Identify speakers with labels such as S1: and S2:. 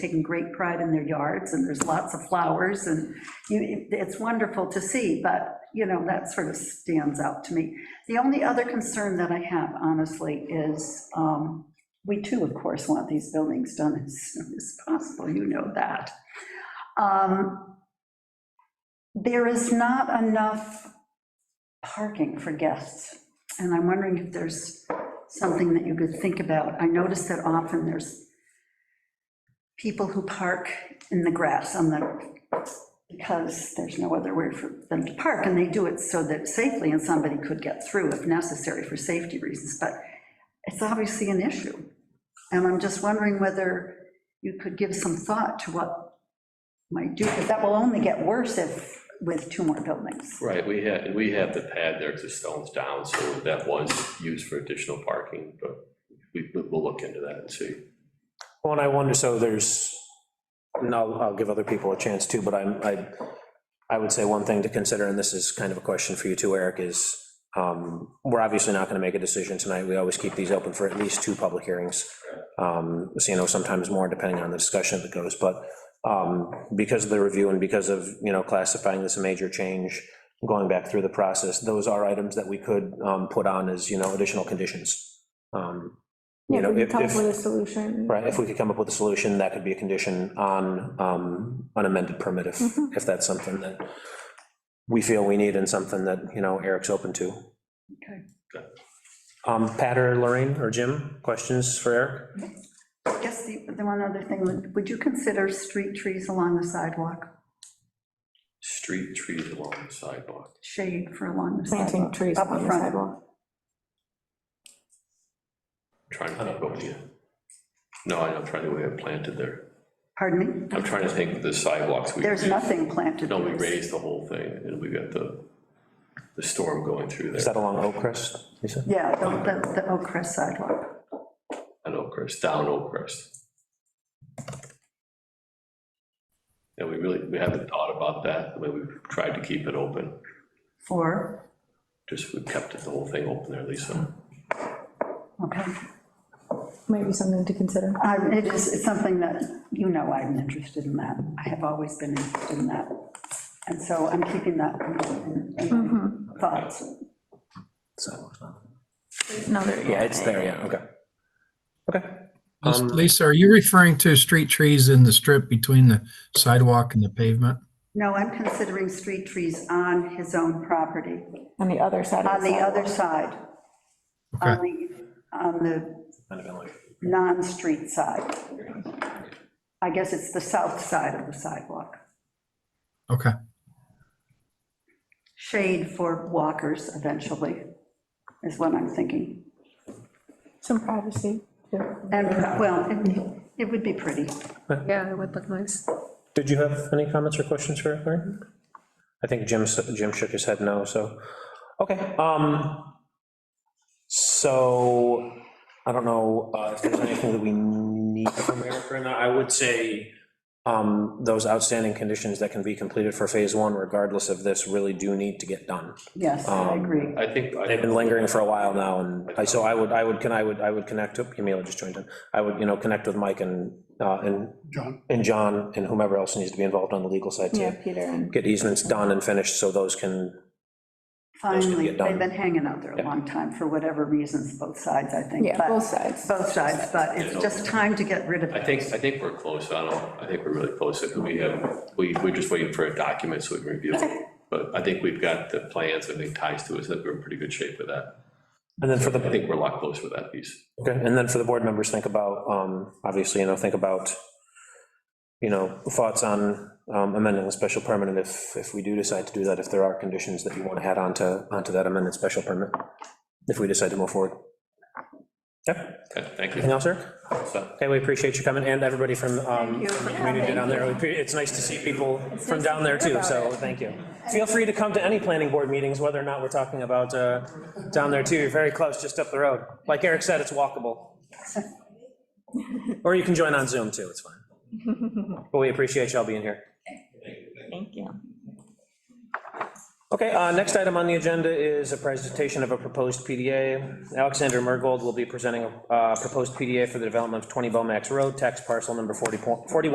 S1: taking great pride in their yards, and there's lots of flowers, and you, it's wonderful to see, but, you know, that sort of stands out to me. The only other concern that I have, honestly, is, um, we too, of course, want these buildings done as soon as possible, you know that. Um, There is not enough parking for guests, and I'm wondering if there's something that you could think about. I notice that often there's people who park in the grass on the, because there's no other way for them to park, and they do it so that safely, and somebody could get through if necessary for safety reasons, but it's obviously an issue. And I'm just wondering whether you could give some thought to what might do, because that will only get worse if, with two more buildings.
S2: Right, we had, and we have the pad there, because the stone's down, so that was used for additional parking, but we, we'll look into that and see.
S3: Well, and I wonder, so there's, and I'll, I'll give other people a chance too, but I'm, I, I would say one thing to consider, and this is kind of a question for you too, Eric, is, um, we're obviously not gonna make a decision tonight, we always keep these open for at least two public hearings. Um, so, you know, sometimes more depending on the discussion that goes, but, um, because of the review and because of, you know, classifying this a major change, going back through the process, those are items that we could, um, put on as, you know, additional conditions. Um, You
S4: Yeah,
S3: know,
S4: we can
S3: if,
S4: come
S3: if,
S4: up with a solution.
S3: Right, if we could come up with a solution, that could be a condition on um, an amended permit, if,
S4: Mhm.
S3: if that's something that we feel we need and something that, you know, Eric's open to.
S1: Okay.
S3: Um, Pat or Lorraine or Jim, questions for Eric?
S1: I guess the, the one other thing, would- would you consider street trees along the sidewalk,
S2: Street trees along the sidewalk.
S1: shade for along the sidewalk?
S4: Planting trees
S1: up
S4: on the
S1: front.
S4: sidewalk.
S2: Trying to think what we, no, I'm trying to, we have planted there.
S1: Pardon me?
S2: I'm trying to think of the sidewalks. we-
S1: There's nothing planted.
S2: No, we
S1: there.
S2: raised the whole thing, and we got the, the storm going through
S3: Is
S2: there.
S3: that along Oakcrest, Lisa?
S1: Yeah, the, the- the Oak Crest sidewalk.
S2: At Oakcrest, down Oakcrest. And we really, we haven't thought about that, the way we've tried to keep it open.
S1: For,
S2: Just, we kept it- the whole thing open there, Lisa.
S3: Hmm.
S1: okay.
S4: Might be something to consider.
S1: Um, It is, it's something that, you know, I'm interested in that. I have always been interested in that. And so I'm keeping that in- in
S4: Mm-hmm.
S1: my thoughts.
S3: Sidewalks, no.
S4: No, there you go.
S3: Yeah, it's there, yeah, okay. Okay,
S5: Lis-
S3: Um,
S5: Lisa, are you referring to street trees in the strip between the sidewalk and the pavement?
S1: No, I'm considering street trees on his own property,
S4: On the other side of
S1: on
S4: the
S1: the other
S4: sidewalk.
S1: side. On the, on the
S3: Kind of like-
S1: non-street side. I guess it's the south side of the sidewalk.
S5: Okay,
S1: Shade for walkers eventually, is what I'm thinking.
S4: Some privacy, too.
S1: And, well, it- it would be pretty.
S6: Yeah, it would look nice.
S3: Did you have any comments or questions for Eric? Lorraine? I think Jim, s- Jim shook his head no, so, okay. um, So, I don't know uh, if there's anything that we need from Eric right now. I would say um, those outstanding conditions that can be completed for phase one, regardless of this, really do need to get done.
S1: Yes, I
S3: Um,
S1: agree.
S2: I think. I-
S3: They've been lingering for a while now, and I- so I would, I would, can, I would, I would connect, oop, Camila just joined in. I would, you know, connect with Mike and, uh, and. John. And John, and whomever else needs to be involved on the legal side
S4: Yeah,
S3: too.
S4: Peter and,
S3: Get easements done and finished, so those can, those can
S1: Finally,
S3: get done.
S1: they've been hanging out there a
S3: Yeah.
S1: long time, for whatever reasons, both sides, I think.
S4: yeah,
S1: but-
S4: both sides.
S1: Both sides, but it's just time to get rid of
S2: I
S1: it.
S2: think, I think we're close, I don't, I think we're really close, if we have, we, we're just waiting for a document so we can review it. But I think we've got the plans, I think ties to us, that we're in pretty good shape with that.
S3: and then for the,
S2: I think we're a lot closer with that piece.
S3: okay, and then for the board members, think about, um, obviously, you know, think about, you know, thoughts on um, amending the special permit, and if, if we do decide to do that, if there are conditions that you want to add on to, onto that amended special permit, if we decide to move forward. Okay,
S2: Okay, thank
S3: anything
S2: you.
S3: else, Eric?
S2: So-
S3: Okay, we appreciate you coming, and everybody from, um,
S1: you.
S3: from the community down there. We appre- It's nice to see people from down there, too, so thank you. Feel free to come to any planning board meetings, whether or not we're talking about uh, down there, too. You're very close, just up the road. Like Eric said, it's walkable. Or you can join on Zoom, too, it's fine. But we appreciate y'all being here.
S4: Thank you.
S3: Okay, uh, next item on the agenda is a presentation of a proposed PDA. Alexander Mergold will be presenting a uh, proposed PDA for the development of 20 Bomax Road, tax parcel number 40 41.